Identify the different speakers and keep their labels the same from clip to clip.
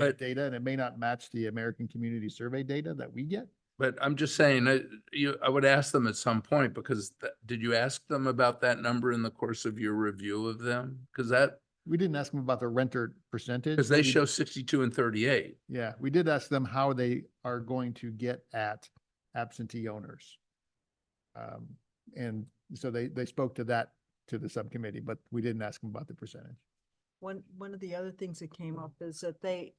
Speaker 1: But-
Speaker 2: Medicaid data and it may not match the American Community Survey data that we get.
Speaker 1: But I'm just saying, I, you, I would ask them at some point, because th- did you ask them about that number in the course of your review of them? Because that,
Speaker 2: We didn't ask them about the renter percentage.
Speaker 1: because they
Speaker 2: We-
Speaker 1: show sixty-two and thirty-eight.
Speaker 2: Yeah, we did ask them how they are going to get at absentee owners. Um, and so they, they spoke to that, to the subcommittee, but we didn't ask them about the percentage.
Speaker 3: One, one of the other things that came up is that they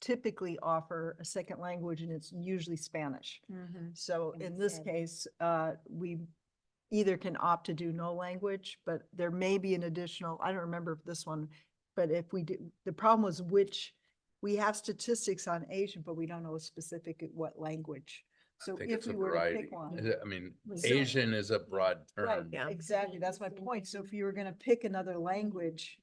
Speaker 3: typically offer a second language and it's usually Spanish. So in this
Speaker 4: Understand.
Speaker 3: case, uh, we either can opt to do no language, but there may be an additional, I don't remember if this one, but if we do, the problem was which, we have statistics on Asian, but we don't know specific at what language.
Speaker 1: I
Speaker 3: So
Speaker 1: think
Speaker 3: if
Speaker 1: it's a
Speaker 3: we were to
Speaker 1: variety.
Speaker 3: pick one.
Speaker 1: I mean,
Speaker 3: So-
Speaker 1: Asian is a broad
Speaker 3: Right,
Speaker 1: term.
Speaker 5: Yeah.
Speaker 3: exactly. That's my point. So if you were gonna pick another language,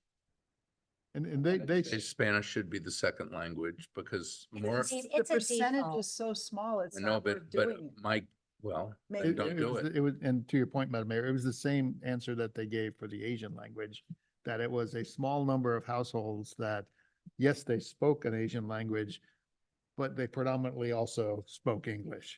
Speaker 2: And, and they,
Speaker 1: I'd
Speaker 2: they,
Speaker 1: say Spanish should be the second language because more,
Speaker 4: It's-
Speaker 3: the
Speaker 4: it's a
Speaker 3: percentage
Speaker 4: default.
Speaker 3: is so small, it's
Speaker 1: I know,
Speaker 3: not worth
Speaker 1: but, but
Speaker 3: doing it.
Speaker 1: Mike, well,
Speaker 3: Maybe-
Speaker 1: then
Speaker 2: it-
Speaker 1: don't
Speaker 2: it
Speaker 1: do
Speaker 2: was-
Speaker 1: it.
Speaker 2: It was, and to your point, Madam Mayor, it was the same answer that they gave for the Asian language, that it was a small number of households that, yes, they spoke an Asian language, but they predominantly also spoke English.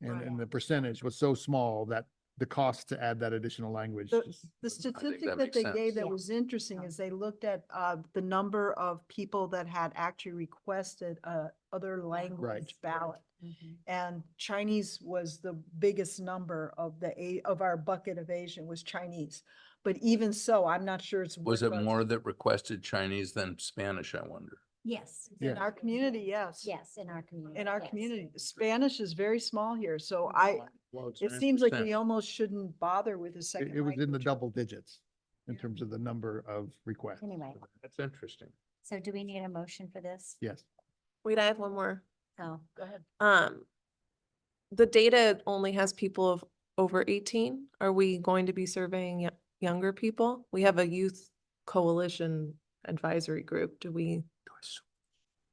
Speaker 2: And,
Speaker 4: Right.
Speaker 2: and the percentage was so small that the cost to add that additional language
Speaker 3: The-
Speaker 2: just
Speaker 3: The
Speaker 1: think that
Speaker 3: statistic that
Speaker 1: makes
Speaker 3: they gave
Speaker 1: sense.
Speaker 3: that
Speaker 4: Yeah.
Speaker 3: was interesting is they looked at uh, the number of people that had actually requested uh, other language ballot. Mm-hmm. And Chinese was the biggest number of the, A- of our bucket of Asian was Chinese. But even so, I'm not sure it's.
Speaker 1: Was it
Speaker 3: worth us-
Speaker 1: more that requested Chinese than Spanish, I wonder?
Speaker 4: Yes.
Speaker 2: Yeah.
Speaker 3: In our community, yes.
Speaker 4: Yes, in our community.
Speaker 3: In our
Speaker 4: yes.
Speaker 3: community. Spanish is very small here, so I, it seems like we almost shouldn't bother with a
Speaker 2: It,
Speaker 3: second.
Speaker 2: it was in the
Speaker 3: language.
Speaker 2: double digits in
Speaker 3: Yeah.
Speaker 2: terms of the number of requests.
Speaker 4: Anyway,
Speaker 1: That's interesting.
Speaker 4: so do we need a motion for this?
Speaker 2: Yes.
Speaker 5: Wait, I have one more.
Speaker 4: Oh,
Speaker 3: Go ahead.
Speaker 5: Um, the data only has people of over eighteen. Are we going to be surveying yo- younger people? We have a youth coalition advisory group. Do we?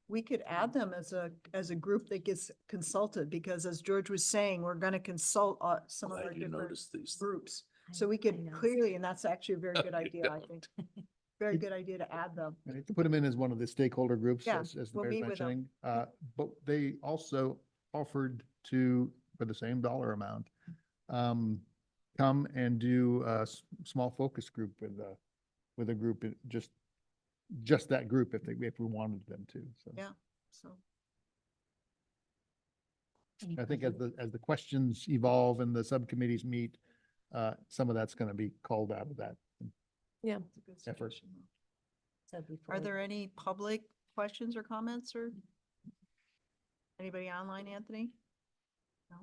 Speaker 3: We could add them as a, as a group that gets consulted, because as George was saying, we're gonna consult uh, some of our
Speaker 1: Glad you
Speaker 3: different
Speaker 1: noticed these.
Speaker 3: groups.
Speaker 4: I-
Speaker 3: So we
Speaker 4: I
Speaker 3: could
Speaker 4: know.
Speaker 3: clearly, and that's actually a very
Speaker 1: No,
Speaker 3: good
Speaker 1: you
Speaker 3: idea, I
Speaker 1: don't.
Speaker 3: think. Very good idea to add them.
Speaker 2: And to put them in as one of the stakeholder groups,
Speaker 3: Yeah,
Speaker 2: as, as the
Speaker 3: we'll
Speaker 2: mayor's
Speaker 3: meet with 'em.
Speaker 2: mentioning. Uh, but they also offered to, for the same dollar amount, um, come and do a s- small focus group with a, with a group, in- just, just that group if they, if we wanted them to. So
Speaker 3: Yeah. So,
Speaker 4: Any
Speaker 2: I think as
Speaker 4: further-
Speaker 2: the, as the questions evolve and the subcommittees meet, uh, some of that's going to be called out of that.
Speaker 3: that's a good
Speaker 2: Effort.
Speaker 3: suggestion, though.
Speaker 4: so before
Speaker 3: Are
Speaker 4: we-
Speaker 3: there any public questions or comments or? Anybody online, Anthony? No?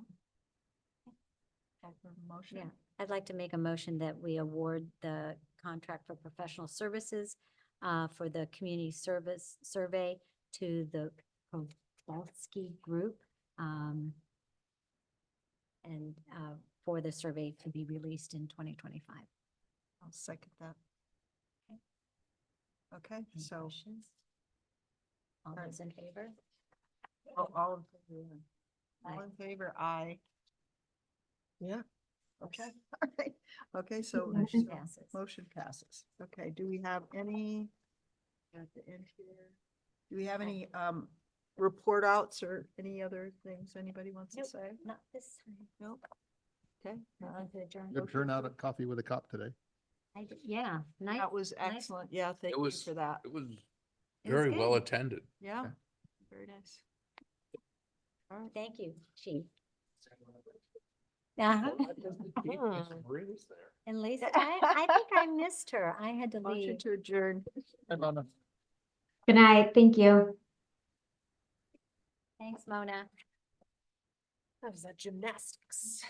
Speaker 3: Call for a
Speaker 4: Yeah,
Speaker 3: Motion?
Speaker 4: I'd like to make a motion that we award the contract for professional services uh, for the community service survey to the Kowalski Group. um, And uh, for the survey to be released in twenty twenty-five.
Speaker 3: I'll second that. Okay, so
Speaker 4: All
Speaker 3: Alright.
Speaker 4: those in favor?
Speaker 3: all- Oh, all in favor? All
Speaker 4: Aye.
Speaker 3: in favor, aye. Yeah, okay, all right, okay, so.
Speaker 4: Motion
Speaker 3: so
Speaker 4: passes.
Speaker 3: Motion passes. Okay, do we have any? At the end here, do we have any um report outs or any other things anybody wants to
Speaker 4: Nope.
Speaker 3: say?
Speaker 4: Not this time.
Speaker 3: Nope. Okay,
Speaker 4: Not
Speaker 3: uh,
Speaker 4: to adjourn.
Speaker 2: Good turnout at Coffee with a Cop today.
Speaker 4: I d- Yeah, nice.
Speaker 3: that was
Speaker 4: nice.
Speaker 3: excellent. Yeah, thank you
Speaker 1: was-
Speaker 3: for that.
Speaker 1: It was
Speaker 4: It was
Speaker 1: very well
Speaker 4: good.
Speaker 1: attended.
Speaker 3: Yeah, very nice. All right.
Speaker 4: Thank you, chief. Uh-huh.
Speaker 5: Hmm.
Speaker 4: And Lisa, I, I think I missed her. I had to
Speaker 3: Motion
Speaker 4: leave.
Speaker 3: to adjourn.
Speaker 4: Good night, thank you. Thanks, Mona.
Speaker 5: That was a gymnastics.